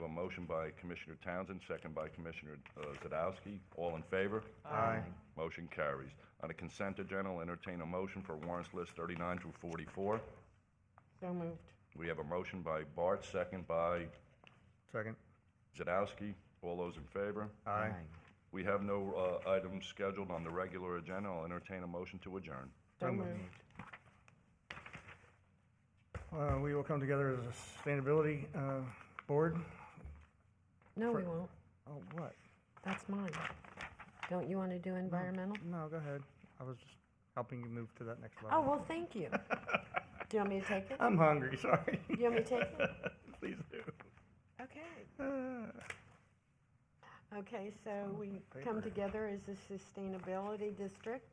motion by Commissioner Townsend, second by Commissioner uh, Zadowski. All in favor? Aye. Motion carries. On the consent agenda, I'll entertain a motion for warrants list 39 through 44. So moved. We have a motion by Bart, second by Second. Zadowski. All those in favor? Aye. We have no uh, items scheduled on the regular agenda. I'll entertain a motion to adjourn. So So moved. Uh, we will come together as a sustainability, uh, board. No, we For- won't. Oh, what? That's mine. Don't you want to do environmental? No, go ahead. I was just helping you move to that next Oh, level. well, thank you. Do you want me to take it? I'm hungry, sorry. Do you want me to take it? Please do. Okay. Uh, Okay, so we paper. come together as a sustainability district,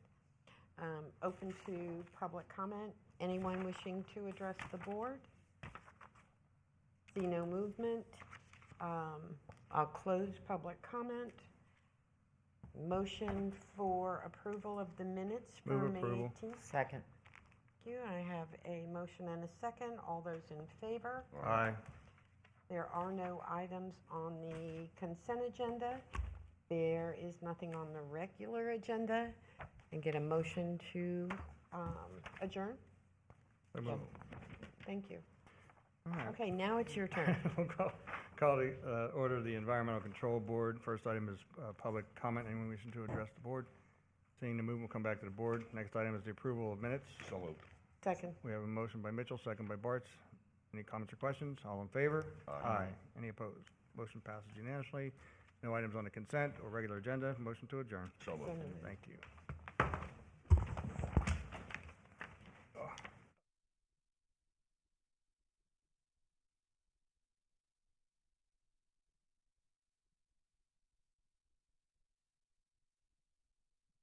um, open to public comment. Anyone wishing to address the board? See no movement. Um, I'll close public comment. Motion for approval of the minutes for Move May approval. 18th. Second. Thank you. I have a motion and a second. All those in favor? Aye. There are no items on the consent agenda. There is nothing on the regular agenda. And get a motion to um, adjourn. So moved. Thank you. All right. Okay, now it's your turn. We'll call, call the, uh, order of the Environmental Control Board. First item is, uh, public comment. Anyone wishing to address the board? Seeing the move, we'll come back to the board. Next item is the approval of minutes. So moved. Second. We have a motion by Mitchell, second by Bartz. Any comments or questions? All in favor? Aye. Any opposed? Motion passes unanimously. No items on the consent or regular agenda. Motion to adjourn. So moved. So moved. Thank you.